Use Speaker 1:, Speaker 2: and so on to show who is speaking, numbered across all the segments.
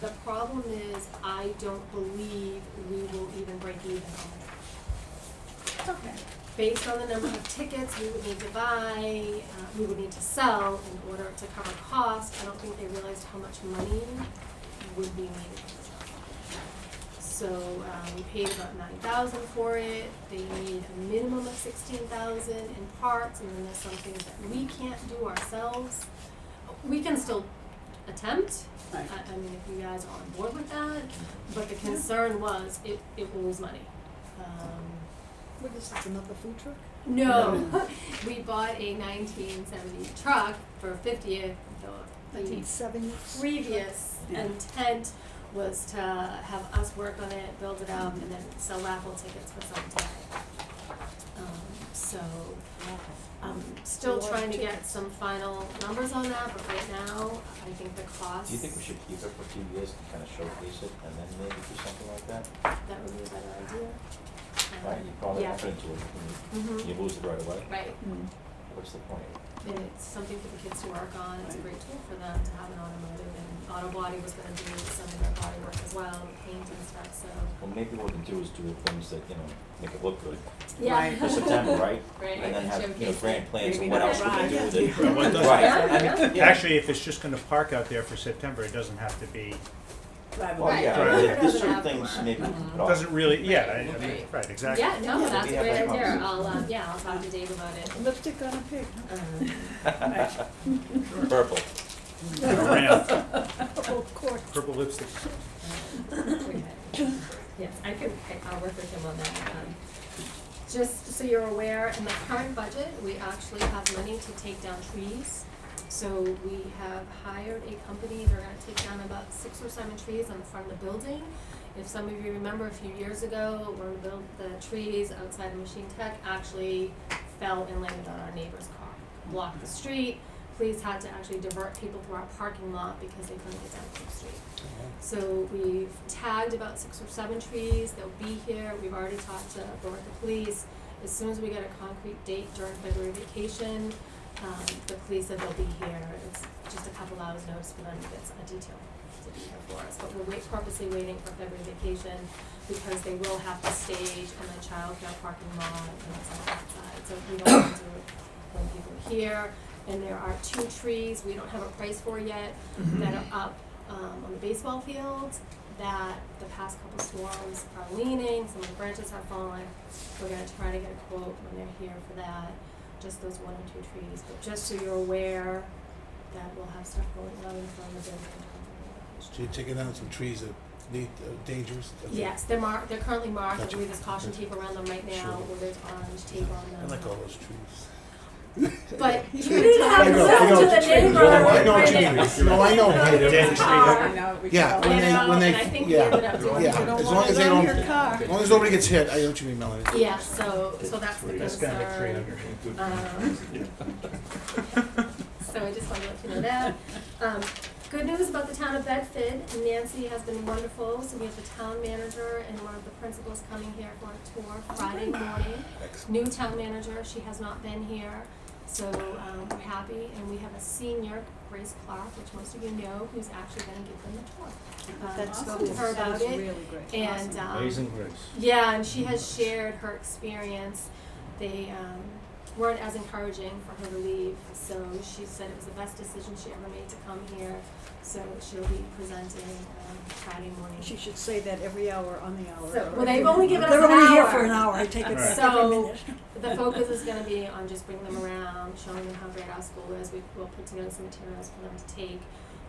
Speaker 1: The problem is, I don't believe we will even break even on it.
Speaker 2: It's okay.
Speaker 1: based on the number of tickets we would need to buy, uh, we would need to sell in order to cover costs. I don't think they realized how much money would be needed. So, um, we paid about nine thousand for it, they need a minimum of sixteen thousand in parts, and then there's some things that we can't do ourselves. We can still attempt, I,
Speaker 2: Right.
Speaker 1: I mean, if you guys are on board with that, but the concern was, it, it will lose money. Um,
Speaker 2: What is this, another food truck?
Speaker 1: Oh, no, we bought a 1970 truck for 50th. The, the
Speaker 2: Seven.
Speaker 1: previous
Speaker 2: Yeah.
Speaker 1: intent was to have us work on it, build it up, and then sell raffle tickets for some time. Um, so I'm still
Speaker 2: A lot of
Speaker 1: trying to get
Speaker 2: tickets.
Speaker 1: some final numbers on that, but right now, I think the cost.
Speaker 3: Do you think we should keep it for a few years to kind of showcase it and then maybe do something like that?
Speaker 1: That would be a better idea. Um,
Speaker 3: Right, you probably
Speaker 1: yeah.
Speaker 3: up into it, and
Speaker 1: Mhm.
Speaker 3: you lose it right away,
Speaker 1: Right.
Speaker 2: Hmm.
Speaker 3: what's the point?
Speaker 1: And it's something for the kids to work on, it's a great tool for them to have an automotive, and auto body was gonna do some of their body work as well, paint and stuff, so.
Speaker 3: Well, maybe what we can do is do things that, you know, make it look good
Speaker 1: Yeah.
Speaker 2: Right.
Speaker 3: for September, right?
Speaker 1: Right,
Speaker 3: And then
Speaker 1: and
Speaker 3: have, you know,
Speaker 1: showcase
Speaker 3: grand
Speaker 1: it.
Speaker 3: plans and
Speaker 2: Maybe
Speaker 3: what
Speaker 2: not
Speaker 3: else we can do
Speaker 2: Ryan.
Speaker 3: with it.
Speaker 4: Yeah, why doesn't-
Speaker 3: Right, I mean, yeah.
Speaker 4: Actually, if it's just gonna park out there for September, it doesn't have to be,
Speaker 3: Well,
Speaker 1: Right. Mm-hmm.
Speaker 3: yeah,
Speaker 4: Right.
Speaker 3: well,
Speaker 1: It
Speaker 3: there's
Speaker 1: doesn't
Speaker 3: certain
Speaker 1: have
Speaker 3: things
Speaker 1: to-
Speaker 3: maybe we can put
Speaker 4: it
Speaker 3: off.
Speaker 4: doesn't really, yeah, I- I mean,
Speaker 1: Right.
Speaker 4: right, exactly.
Speaker 1: Yeah, no,
Speaker 3: Yeah,
Speaker 1: that's
Speaker 3: we
Speaker 1: a
Speaker 3: have
Speaker 1: great
Speaker 3: that
Speaker 1: idea,
Speaker 3: problem.
Speaker 1: I'll, um, yeah, I'll talk to Dave about it.
Speaker 2: Lipstick on a pig.
Speaker 1: Um,
Speaker 3: Purple,
Speaker 4: Around.
Speaker 2: Oh, Of course.
Speaker 4: Purple lipstick.
Speaker 1: Okay. Yes, I could, I- I'll work with him on that. um, Just so you're aware, in the current budget, we actually have money to take down trees. So we have hired a company, they're gonna take down about six or seven trees on the front of the building. If some of you remember a few years ago, when we built the trees outside of Machine Tech, actually fell and landed on our neighbor's car. Blocked the street, police had to actually divert people through our parking lot because they couldn't get down to the street. So we've tagged about six or seven trees, they'll be here, we've already talked to Berwick Police. As soon as we get a concrete date during February vacation, um, the police said they'll be here, it's just a couple hours notice for them to get a detail to be here for us. But we're wait, purposely waiting for February vacation because they will have to stage in the childcare parking lot and it's all outside, so we don't want to when people are here. And there are two trees, we don't have a price for yet, that are up um, on the baseball field that the past couple storms are leaning, some of the branches have fallen. We're gonna try to get a quote when they're here for that, just those one or two trees, but just so you're aware that we'll have stuff going on in front of the building.
Speaker 5: So you're taking down some trees that need, are dangerous? I think.
Speaker 1: Yes, they're marked, they're currently marked, I
Speaker 5: Gotcha.
Speaker 1: believe there's caution tape around them right now,
Speaker 5: Sure.
Speaker 1: or there's orange tape on them.
Speaker 5: I like all those trees.
Speaker 1: But you didn't have
Speaker 5: I
Speaker 1: to
Speaker 5: know,
Speaker 1: sell
Speaker 5: I know
Speaker 1: to
Speaker 5: what
Speaker 1: the
Speaker 5: you mean.
Speaker 1: neighbor.
Speaker 5: I know what you
Speaker 1: right?
Speaker 5: mean. No, I know.
Speaker 1: Right.
Speaker 4: Dead
Speaker 1: Right.
Speaker 4: tree.
Speaker 2: Oh,
Speaker 1: Right.
Speaker 5: Yeah, when
Speaker 1: You
Speaker 5: they,
Speaker 1: know,
Speaker 5: when
Speaker 1: and
Speaker 5: they,
Speaker 1: I think we ended
Speaker 5: yeah,
Speaker 1: up doing.
Speaker 5: yeah, as long as they don't, as
Speaker 2: car.
Speaker 5: long as nobody gets hit, I know what you mean, Melanie.
Speaker 1: Yeah, so, so that's the concern.
Speaker 4: That's gonna make three hundred.
Speaker 1: Um, So I just wanted to let you know that. Um, good news about the town of Bedford, Nancy has been wonderful, so we have the town manager and one of the principals coming here for a tour Friday morning. New town manager, she has not been here, so, um, we're happy, and we have a senior, Grace Clark, which most of you know, who's actually gonna give them the tour. Um,
Speaker 2: That's
Speaker 1: spoke
Speaker 2: cool.
Speaker 1: to her about
Speaker 2: Sounds
Speaker 1: it,
Speaker 2: really great.
Speaker 1: and, um,
Speaker 4: grace.
Speaker 1: yeah, and she has shared her experience. They um, weren't as encouraging for her to leave, so she said it was the best decision she ever made to come here. So she'll be presenting um, Friday morning.
Speaker 2: She should say that every hour on the hour.
Speaker 1: So- well, they've only given us
Speaker 2: They're
Speaker 1: an
Speaker 2: only here
Speaker 1: hour.
Speaker 2: for an hour, I take it
Speaker 4: Right.
Speaker 2: every
Speaker 1: So-
Speaker 2: minute.
Speaker 1: the focus is going to be on just bringing them around, showing them how great our school is. We will put together some materials for them to take,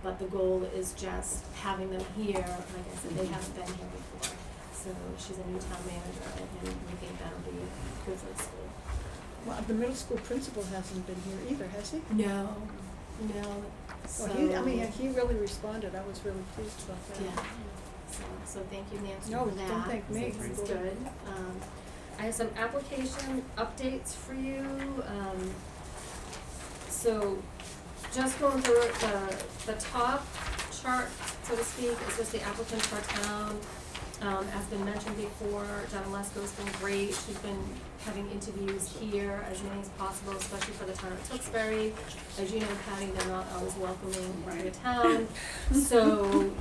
Speaker 1: but the goal is just having them here. Like I said, they haven't been here before, so she's a new town manager, and we think that'll be good for the school.
Speaker 2: Well, the middle school principal hasn't been here either, has he?
Speaker 1: No, no, so.
Speaker 2: Well, he, I mean, he really responded, I was really pleased about that.
Speaker 1: Yeah. So, so thank you, Nancy,
Speaker 2: No,
Speaker 1: for that.
Speaker 2: don't thank me.
Speaker 1: This is good. Um, I have some application updates for you. Um, so just going through it, the, the top chart, so to speak, is just the applicants for town. Um, as been mentioned before, Donna Lesko's been great. She's been having interviews here as many as possible, especially for the town of Tewksbury. As you know, Patty, they're not always welcoming to the town. So